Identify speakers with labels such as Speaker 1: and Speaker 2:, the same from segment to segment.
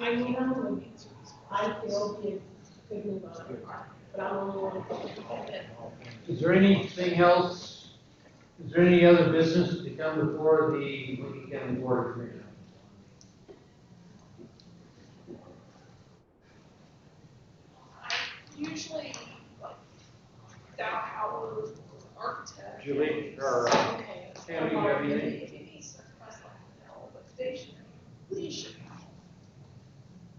Speaker 1: I mean, I'm gonna be, I feel good, good move on, but I'm only one.
Speaker 2: Is there anything else, is there any other business to come before the Lincoln County Board of Commissioners?
Speaker 3: Usually, like, that our architect.
Speaker 2: Julie,
Speaker 3: is-
Speaker 2: or, uh,
Speaker 3: Okay.
Speaker 2: Tammy, you have anything?
Speaker 3: Denise, I was like, no, but they should, we should have.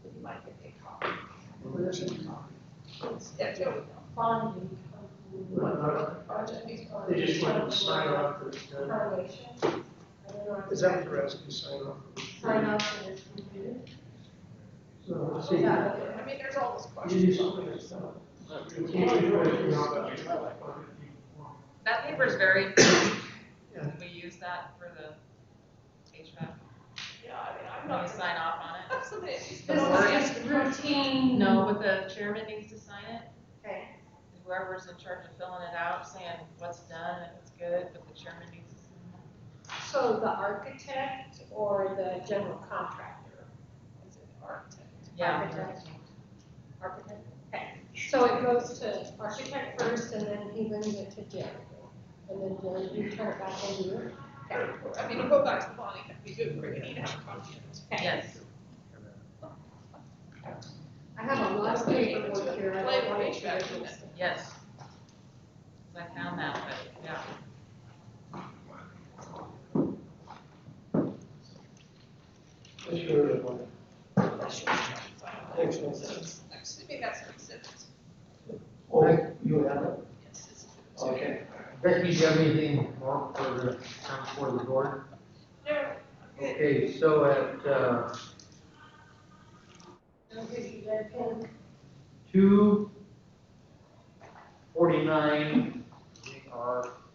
Speaker 3: But you might get a copy. It's- Yeah, there we go.
Speaker 1: Bonding.
Speaker 3: Project is on-
Speaker 4: They just wanted to sign off that it's done.
Speaker 1: Correlation. I don't know.
Speaker 4: Is that what you're asking, sign off?
Speaker 1: Sign off and it's completed.
Speaker 4: So, let's see.
Speaker 1: Yeah.
Speaker 3: I mean, there's all those
Speaker 4: You
Speaker 3: questions.
Speaker 4: do something yourself. You can't do anything on that.
Speaker 5: That paper is very, important.
Speaker 4: Yeah.
Speaker 5: we use that for the HVAC,
Speaker 3: Yeah, I mean, I'm
Speaker 5: when we
Speaker 3: not.
Speaker 5: sign off on it.
Speaker 3: Have somebody at least-
Speaker 1: This is just routine.
Speaker 5: No, but the chairman needs to sign it,
Speaker 1: Okay.
Speaker 5: whoever's in charge of filling it out, saying what's done and what's good, but the chairman needs to sign
Speaker 1: So the architect or the general contractor? Is it architect?
Speaker 5: it. Yeah.
Speaker 1: Architect. Architect, okay. So it goes to architect first and then he brings it to Jerry. And then Jerry, you turn it back over to you?
Speaker 3: I mean, you go back to Bonnie, that'd be good, we're gonna need to have a copy. of it.
Speaker 1: Okay.
Speaker 5: Yes.
Speaker 1: I have a lot of paperwork here. I don't want to.
Speaker 3: Play with HVAC.
Speaker 5: Yes. 'Cause I found that, but, yeah.
Speaker 4: Let's go to the one.
Speaker 3: That's your contract.
Speaker 4: Next one.
Speaker 3: So it's- I'm assuming that's an exhibit.
Speaker 4: Oh, you have it?
Speaker 3: Yes, it's an exhibit.
Speaker 4: Okay.
Speaker 2: Becky, do you have anything more for the, come for the board?
Speaker 3: No, good.
Speaker 2: Okay, so at, uh,
Speaker 1: I'll give you that pen.
Speaker 2: two forty-nine, we are